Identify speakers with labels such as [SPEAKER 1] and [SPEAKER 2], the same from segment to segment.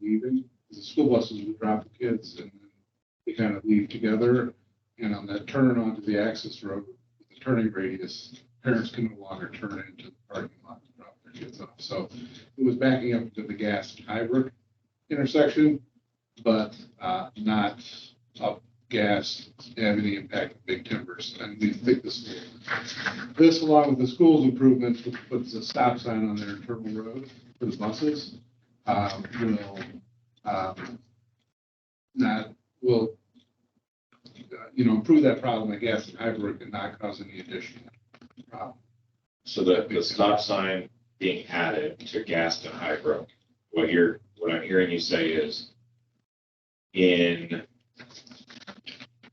[SPEAKER 1] leaving. The school buses would drop the kids and then they kind of leave together. And on that turn onto the access road, the turning radius, parents can no longer turn into the parking lot to drop their kids off. So it was backing up to the gas hybrid intersection, but uh, not up gas have any impact on big timbers. And we think this, this along with the school's improvements, which puts a stop sign on their Turtle Road for the buses, um, will, um, not, will, uh, you know, improve that problem, I guess, in Hyberg and not cause any additional problem.
[SPEAKER 2] So the, the stop sign being added to Gaston High Brook, what you're, what I'm hearing you say is in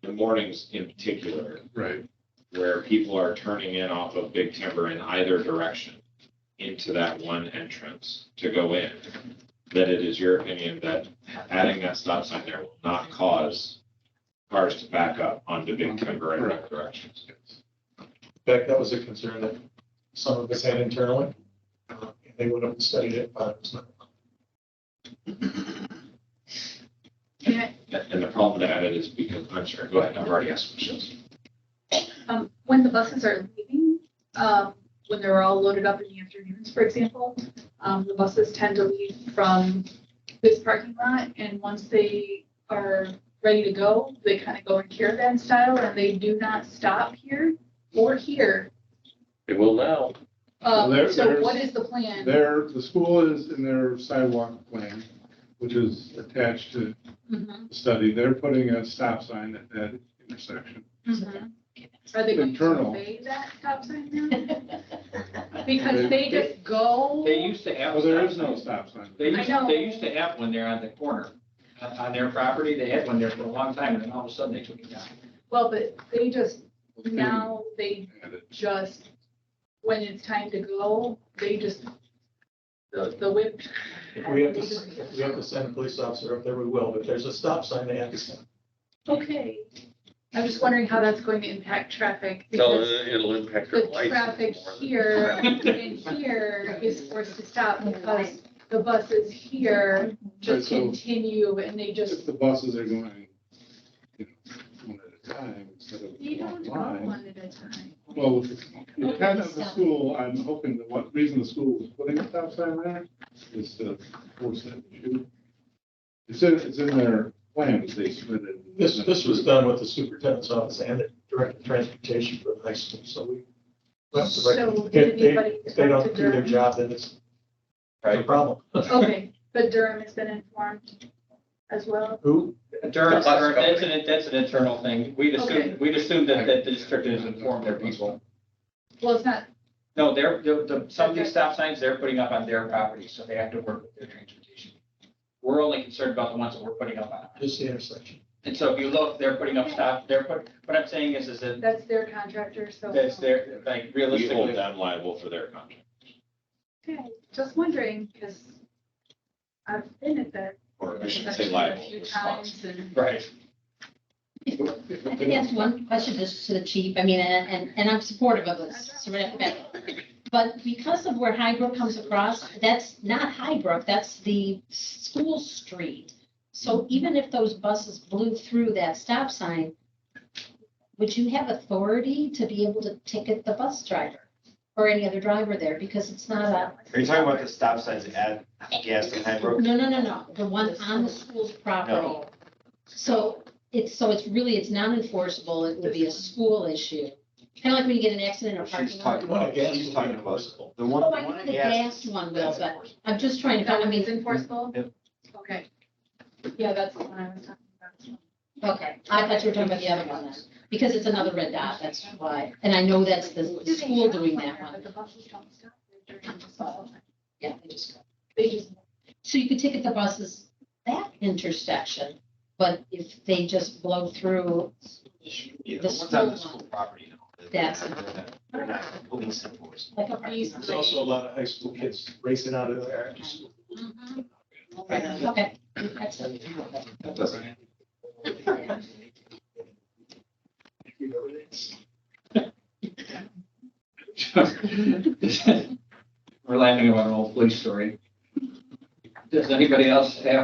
[SPEAKER 2] the mornings in particular,
[SPEAKER 1] Right.
[SPEAKER 2] where people are turning in off of Big Timber in either direction into that one entrance to go in, that it is your opinion that adding that stop sign there will not cause cars to back up onto Big Timber in both directions.
[SPEAKER 3] In fact, that was a concern that some of us had internally. Uh, They would have studied it, but it was not.
[SPEAKER 4] Can
[SPEAKER 2] And the problem with that is because, I'm sorry, go ahead, I've already asked questions.
[SPEAKER 4] I- um, When the buses are leaving, um, when they're all loaded up in the afternoons, for example, um, the buses tend to leave from this parking lot, and once they are ready to go, they kind of go in caravan style, and they do not stop here or here.
[SPEAKER 5] It will now.
[SPEAKER 1] Well, there-
[SPEAKER 4] Um, So
[SPEAKER 1] there's-
[SPEAKER 4] what is the plan?
[SPEAKER 1] There, the school is in their sidewalk plan, which is attached to
[SPEAKER 4] Mhm,
[SPEAKER 1] the study. They're putting a stop sign at that intersection.
[SPEAKER 4] mhm. Are they going to
[SPEAKER 1] Internal.
[SPEAKER 4] obey that stop sign now? Because they just go.
[SPEAKER 6] They used to have.
[SPEAKER 1] Well, Oh, there is no stop sign.
[SPEAKER 6] They
[SPEAKER 4] I
[SPEAKER 6] used,
[SPEAKER 4] know.
[SPEAKER 6] they used to have one there on the corner, on, on their property, they had one there for a long time, and then all of a sudden they took it down.
[SPEAKER 4] Well, but they just, now they
[SPEAKER 1] And it-
[SPEAKER 4] just, when it's time to go, they just, the, the whip.
[SPEAKER 3] If we have to, s- if we have to send a police officer up there, we will, but there's a stop sign they have to send.
[SPEAKER 4] Okay. I'm just wondering how that's going to impact traffic,
[SPEAKER 5] No,
[SPEAKER 4] because
[SPEAKER 5] it- uh, it'll impact your
[SPEAKER 4] the
[SPEAKER 5] license.
[SPEAKER 4] traffic
[SPEAKER 5] more than-
[SPEAKER 4] here and here is forced to stop because the buses here just
[SPEAKER 1] Right, so-
[SPEAKER 4] continue and they
[SPEAKER 1] If
[SPEAKER 4] just,
[SPEAKER 1] the buses are going, you know, one at a time instead of
[SPEAKER 4] they don't
[SPEAKER 1] one
[SPEAKER 4] go
[SPEAKER 1] line.
[SPEAKER 4] one at a time.
[SPEAKER 1] Well, with the intent of the school, I'm hoping that what reason the school was putting a stop sign there is to force that issue. It's in, it's in their plans they submitted.
[SPEAKER 3] This, this was done with the superintendent's office and the director of transportation for the high school, so we. that's the right-
[SPEAKER 4] So did
[SPEAKER 3] If they,
[SPEAKER 4] anybody
[SPEAKER 3] if they
[SPEAKER 4] talk
[SPEAKER 3] don't
[SPEAKER 4] to
[SPEAKER 3] do their
[SPEAKER 4] Durham?
[SPEAKER 3] job, then it's a
[SPEAKER 5] Right.
[SPEAKER 3] problem.
[SPEAKER 4] Okay, but Durham has been informed as well.
[SPEAKER 3] Who?
[SPEAKER 6] Durham,
[SPEAKER 5] That's
[SPEAKER 6] Durham, that's an, that's an internal thing, we'd
[SPEAKER 4] Okay.
[SPEAKER 6] assume, we'd assume that, that the district has informed their people.
[SPEAKER 4] Well, it's not,
[SPEAKER 6] No, they're, the, the, some of
[SPEAKER 4] Okay.
[SPEAKER 6] these stop signs, they're putting up on their property, so they have to work with their transportation. We're only concerned about the ones that we're putting up on.
[SPEAKER 3] Just the intersection.
[SPEAKER 6] And so if you look, they're putting up stop, they're put, what I'm saying is, is that,
[SPEAKER 4] that's their contractor, so.
[SPEAKER 6] that's their, like
[SPEAKER 2] We
[SPEAKER 6] realistically.
[SPEAKER 2] hold them liable for their contract.
[SPEAKER 4] Okay, just wondering, because I've been at that.
[SPEAKER 2] Or I shouldn't say
[SPEAKER 4] intersection
[SPEAKER 2] liable,
[SPEAKER 4] A few
[SPEAKER 2] responsible.
[SPEAKER 4] times and.
[SPEAKER 6] Right.
[SPEAKER 7] I think that's one question just to the chief, I mean, and, and, and I'm supportive of this, so right off the bat. But because of where Highbrook comes across, that's not Highbrook, that's the school street. So even if those buses blew through that stop sign, would you have authority to be able to ticket the bus driver? Or any other driver there, because it's not a,
[SPEAKER 8] Are you talking about the stop signs at Gaston High Brook?
[SPEAKER 7] no, no, no, no, the one on the school's property.
[SPEAKER 8] No.
[SPEAKER 7] So it's, so it's really, it's not enforceable, it would be a school issue. Kind of like when you get in an accident in a
[SPEAKER 8] She's
[SPEAKER 7] parking
[SPEAKER 8] talking
[SPEAKER 7] lot.
[SPEAKER 8] about, she's talking about the one,
[SPEAKER 7] Oh,
[SPEAKER 8] the
[SPEAKER 7] I
[SPEAKER 8] one
[SPEAKER 7] know
[SPEAKER 8] at
[SPEAKER 7] the
[SPEAKER 8] Gaston.
[SPEAKER 7] gas one, Will, but I'm just trying to,
[SPEAKER 4] That
[SPEAKER 7] find- I
[SPEAKER 4] one is
[SPEAKER 7] mean,
[SPEAKER 4] enforceable?
[SPEAKER 8] Yep.
[SPEAKER 4] Okay. Yeah, that's the one I was talking about.
[SPEAKER 7] okay, I thought you were talking about the other one then, because it's another red dot, that's why. And I know that's the the school doing that one.
[SPEAKER 4] But the buses don't stop. They're turning to stop.
[SPEAKER 7] Yeah, they just,
[SPEAKER 4] They just,
[SPEAKER 7] so you could ticket the buses that intersection, but if they just blow through,
[SPEAKER 8] Yeah, the
[SPEAKER 7] The
[SPEAKER 8] ones on the
[SPEAKER 7] school one.
[SPEAKER 8] school property now.
[SPEAKER 7] That's-
[SPEAKER 8] They're not police enforcement.
[SPEAKER 7] like a piece.
[SPEAKER 3] There's also a lot of high school kids racing out of there after school.
[SPEAKER 7] Okay, that's it.
[SPEAKER 8] That doesn't.
[SPEAKER 6] We're laughing about an old police story. Does anybody else have